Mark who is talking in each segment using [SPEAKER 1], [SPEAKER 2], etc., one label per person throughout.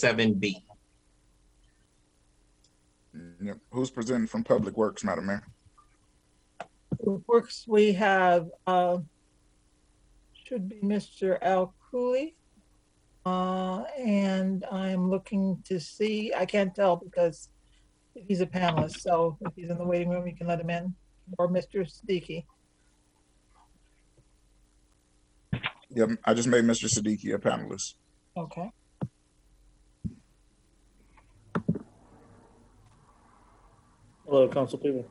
[SPEAKER 1] seven B.
[SPEAKER 2] Yep. Who's presenting from Public Works, Madam Mayor?
[SPEAKER 3] Public Works, we have, uh, should be Mr. Al Cooley. Uh, and I'm looking to see, I can't tell because he's a panelist, so if he's in the waiting room, you can let him in, or Mr. Siddiqui.
[SPEAKER 2] Yep, I just made Mr. Siddiqui a panelist.
[SPEAKER 3] Okay.
[SPEAKER 4] Hello, council people.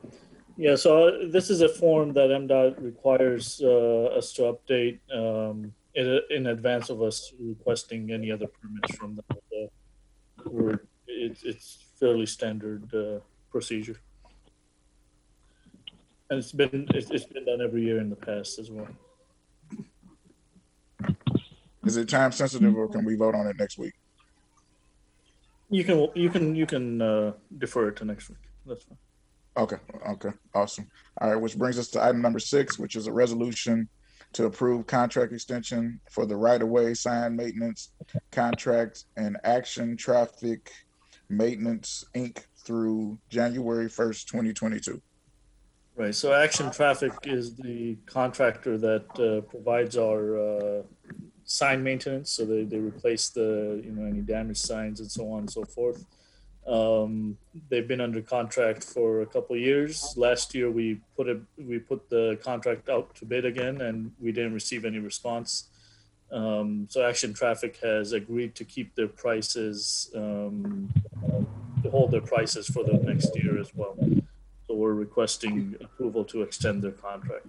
[SPEAKER 4] Yeah, so uh, this is a form that MDOT requires uh, us to update um, in, in advance of us requesting any other permits from them. Uh, we're- It's, it's fairly standard uh, procedure. And it's been, it's it's been done every year in the past as well.
[SPEAKER 2] Is it time sensitive or can we vote on it next week?
[SPEAKER 4] You can, you can, you can uh, defer it to next week. That's fine.
[SPEAKER 2] Okay, okay, awesome. All right, which brings us to item number six, which is a resolution to approve contract extension for the right-of-way sign maintenance contract and Action Traffic Maintenance, Inc. through January first, twenty twenty-two.
[SPEAKER 4] Right, so Action Traffic is the contractor that uh, provides our uh, sign maintenance, so they, they replace the, you know, any damaged signs and so on and so forth. Um, They've been under contract for a couple of years. Last year, we put a, we put the contract out to bid again, and we didn't receive any response. Um, So Action Traffic has agreed to keep their prices, um, uh, to hold their prices for the next year as well. So we're requesting approval to extend their contract.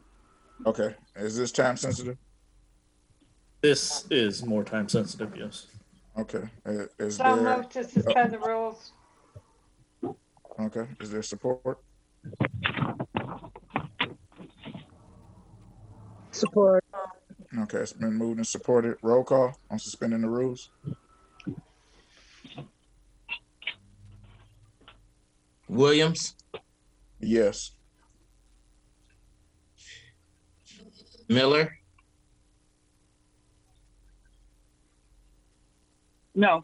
[SPEAKER 2] Okay, is this time sensitive?
[SPEAKER 4] This is more time sensitive, yes.
[SPEAKER 2] Okay, i- is
[SPEAKER 5] So
[SPEAKER 2] there,
[SPEAKER 5] moved to suspend the rules.
[SPEAKER 2] okay, is there support?
[SPEAKER 6] Support.
[SPEAKER 2] Okay, it's been moved and supported. Roll call on suspending the rules.
[SPEAKER 1] Williams,
[SPEAKER 2] Yes.
[SPEAKER 1] Miller,
[SPEAKER 6] No.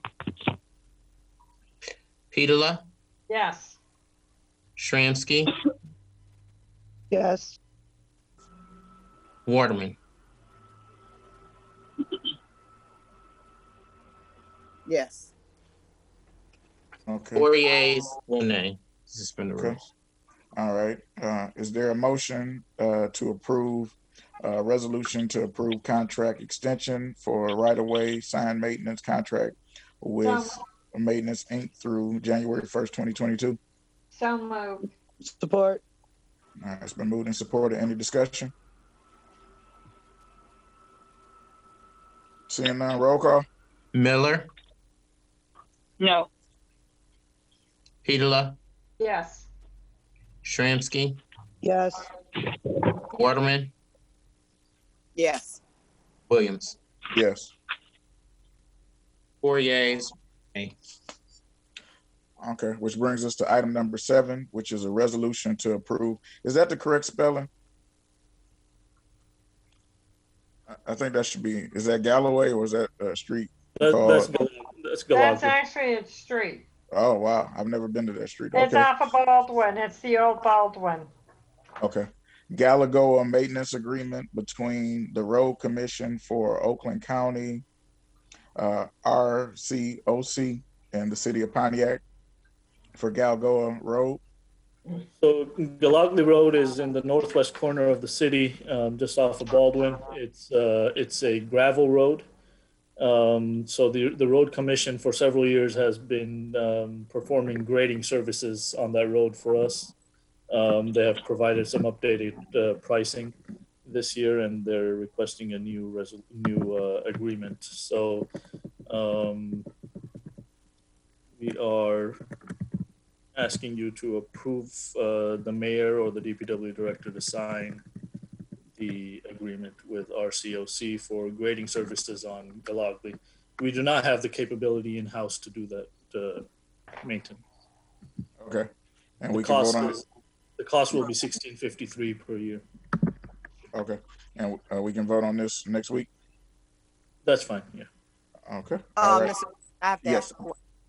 [SPEAKER 1] Petola,
[SPEAKER 5] Yes,
[SPEAKER 1] Shramsky,
[SPEAKER 6] Yes.
[SPEAKER 1] Waterman.
[SPEAKER 6] Yes.
[SPEAKER 2] Okay.
[SPEAKER 1] Four yeas, one nay. Suspend the
[SPEAKER 2] Hmm. Okay.
[SPEAKER 1] rules.
[SPEAKER 2] All right. Uh, is there a motion uh, to approve uh, resolution to approve contract extension for right of way sign maintenance contract with Maintenance Inc. through January first, twenty twenty two?
[SPEAKER 5] so moved.
[SPEAKER 6] Support.
[SPEAKER 2] All right, Uh, it's been moved and supported. Any discussion? Seeing none, roll call.
[SPEAKER 1] Miller,
[SPEAKER 6] No.
[SPEAKER 1] Petola,
[SPEAKER 5] Yes,
[SPEAKER 1] Shramsky,
[SPEAKER 6] Yes.
[SPEAKER 1] Waterman,
[SPEAKER 6] Yes.
[SPEAKER 1] Williams.
[SPEAKER 2] Yes.
[SPEAKER 1] Four yeas.
[SPEAKER 2] Okay, which brings us to item number seven, which is a resolution to approve. Is that the correct spelling? I, I think that should be, is that Galloway or is that uh, Street?
[SPEAKER 4] That, that's,
[SPEAKER 2] Oh.
[SPEAKER 4] Gal- that's
[SPEAKER 5] that's
[SPEAKER 4] Galaga.
[SPEAKER 5] actually a street.
[SPEAKER 2] Oh, wow, I've never been to that street.
[SPEAKER 5] It's
[SPEAKER 2] Okay,
[SPEAKER 5] off of Baldwin. It's the old Baldwin.
[SPEAKER 2] okay. Galagoa Maintenance Agreement between the Road Commission for Oakland County, uh, RCOC, and the City of Pontiac for Galagoa Road.
[SPEAKER 4] So Galagly Road is in the northwest corner of the city, um, just off of Baldwin. It's, uh, it's a gravel road. Um, so the, the road commission for several years has been, um, performing grading services on that road for us. Um, they have provided some updated, uh, pricing this year and they're requesting a new resol, new, uh, agreement. So, um, we are asking you to approve, uh, the mayor or the DPW director to sign the agreement with RCOC for grading services on Galagly. We do not have the capability in-house to do that, uh, maintenance.
[SPEAKER 2] Okay. And
[SPEAKER 4] The
[SPEAKER 2] we can vote
[SPEAKER 4] cost
[SPEAKER 2] on it.
[SPEAKER 4] is, the cost will be sixteen fifty-three per year.
[SPEAKER 2] Okay. And uh, we can vote on this next week?
[SPEAKER 4] That's fine, yeah.
[SPEAKER 2] Okay.
[SPEAKER 7] Um,
[SPEAKER 2] All right.
[SPEAKER 7] Mr. I have to
[SPEAKER 2] Yes.
[SPEAKER 7] ask a que-